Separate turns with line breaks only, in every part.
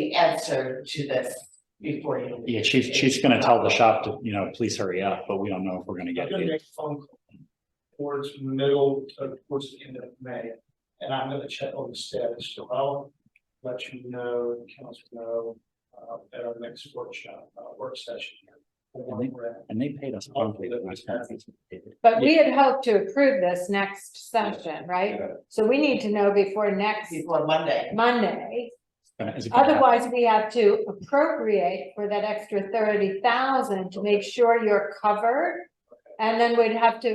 the answer to this before you.
Yeah, she's, she's gonna tell the shop to, you know, please hurry up, but we don't know if we're gonna
I'm
get
gonna
it.
make a phone call towards middle to towards the end of May, and I'm gonna check on the status, so I'll let you know, council know, uh, at our next workshop, uh, work session. here.
I think- And they paid us promptly the last time.
But we had hoped to approve this next session, right? So we need to know before next
Before Monday.
Is
Monday.
it gonna happen?
Otherwise, we have to appropriate for that extra thirty thousand to make sure you're covered. And then we'd have to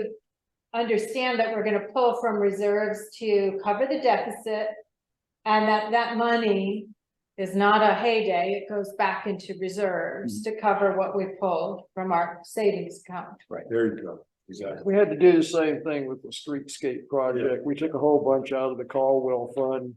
understand that we're gonna pull from reserves to cover the deficit. And that that money is not a heyday, it goes back into reserves to cover what we pulled from our savings account.
There you go, exactly.
We had to do the same thing with the streetscape project. We took a whole bunch out of the Caldwell fund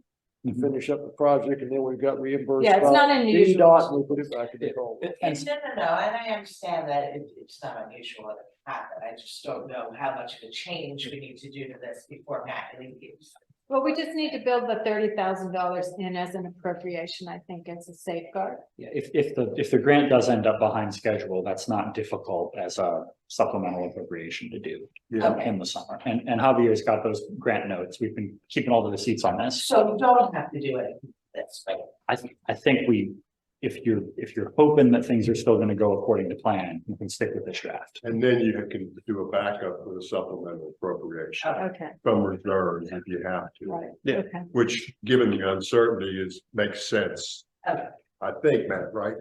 to
Mhm.
finish up the project and then we got reimbursed.
Yeah, it's
by
not
DDOT,
unusual.
and We put it back in the Caldwell.
No,
And
no, no, and I understand that it, it's not unusual that it happened. I just don't know how much of a change we need to do to this before Matt leaves.
Well, we just need to build the thirty thousand dollars in as an appropriation, I think, as a safeguard.
Yeah, if, if the, if the grant does end up behind schedule, that's not difficult as a supplemental appropriation to do
Yeah.
Okay.
in the summer. And, and Javier's got those grant notes. We've been keeping all the receipts on this.
So you don't have to do it this way.
I, th- I think we, if you're, if you're hoping that things are still gonna go according to plan, you can stick with this draft.
And then you can do a backup with a supplemental appropriation
Okay,
from reserves if you have to,
right,
Yeah.
okay.
which, given the uncertainty, is, makes sense.
Okay.
I think, Matt, right?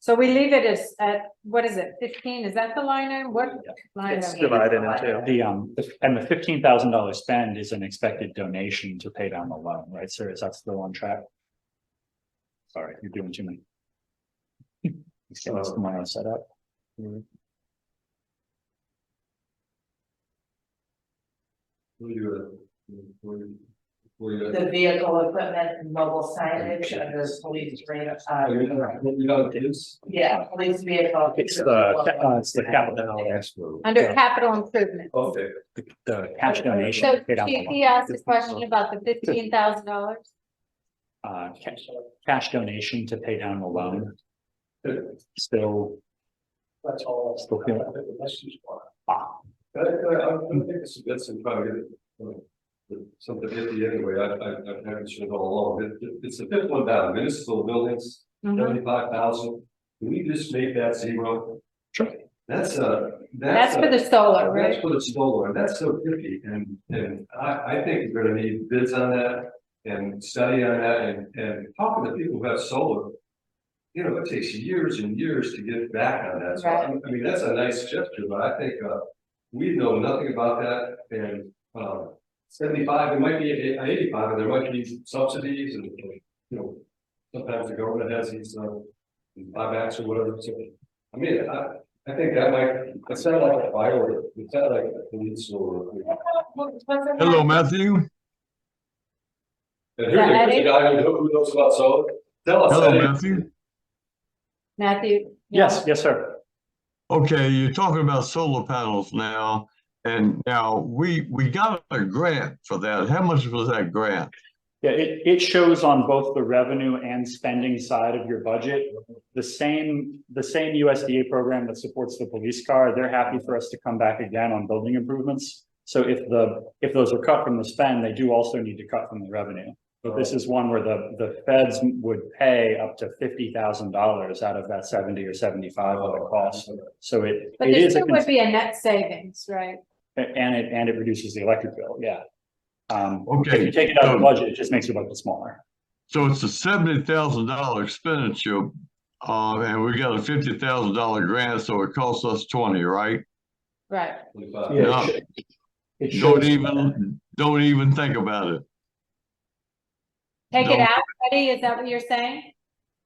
So we leave it as, at, what is it, fifteen, is that the line item? What line
It's
item?
divided into-
The, um, the- and the fifteen thousand dollar spend is an expected donation to pay down the loan, right, sir? Is that still on track? Sorry, you're doing too many. Let's get this tomorrow set up.
We'll do it. We'll do it. We'll do it.
The vehicle equipment, and mobile signage, and those police rate, uh, yeah, police vehicle.
It's the, uh, it's the capital,
Under capital improvement.
Oh.
Okay.
the cash donation.
So
to pay down the
Chief,
loan.
he asked a question about the fifteen thousand dollars.
Uh, cash, cash donation to pay down the loan, still,
That's all.
Still feel it.
That's just why.
ah,
I, uh, I, I don't think it's, that's in probably. uh, Something iffy anyway, I, I, I've had it all along, It- it- it's the fifth one down, municipal buildings,
Mm-hmm.
seventy-five thousand. Can we just make that zero?
Sure.
That's a,
That's
that's
for
a,
the solar,
that's
right?
for the solar, and that's so iffy, and, and I, I think we're gonna need bids on that. And study on that, and, and talking to people who have solar. You know, it takes years and years to get back on that, so I, I mean, that's a nice gesture, but I think, uh. We know nothing about that and um seventy-five, it might be a- a eighty-five, and there might be subsidies and, you know. Sometimes the government has these uh buybacks or whatever, so, I mean, I I think that might, it sounded like a firework, it sounded like a police or.
Hello,
Matthew.
And here's a here's a guy who who knows about solar, tell us. Eddie.
Matthew.
Matthew?
yes, yes, sir.
Okay, you're talking about solar panels now, and now we, we got a grant for that. How much was that grant?
Yeah, it, it shows on both the revenue and spending side of your budget. The same, the same USDA program that supports the police car, they're happy for us to come back again on building improvements. So if the, if those are cut from the spend, they do also need to cut from the revenue. But this is one where the, the feds would pay up to fifty thousand dollars out of that seventy or seventy-five of the cost. So it,
But
it
there
is, a
still would
cons-
be a net savings, right?
and it, and it reduces the electric bill, yeah. Um, if you
Okay,
take it out of the
so-
budget, it just makes your budget smaller.
so it's a seventy thousand dollar expenditure, uh, and we got a fifty thousand dollar grant, so it costs us twenty, right?
Right.
25.
Yeah, it
No.
should- it
Don't
should-
even, don't even think about it.
Take it
No.
out, Betty, is that what you're saying?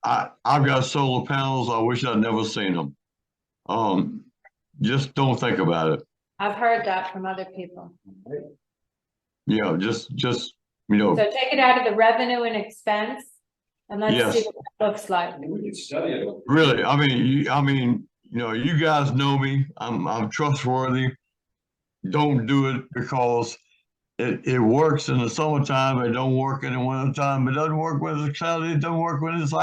I, I've got solar panels. I wish I'd never seen them. Um, just don't think about it.
I've heard that from other people.
You know, just, just, you know.
So take it out of the revenue and expense and let's see
Yes.
what that looks like.
We could study it.
Really, I mean, you, I mean, you know, you guys know me, I'm, I'm trustworthy. Don't do it because it, it works in the summertime, it don't work in the wintertime, it doesn't work when it's cloudy, it doesn't work when it's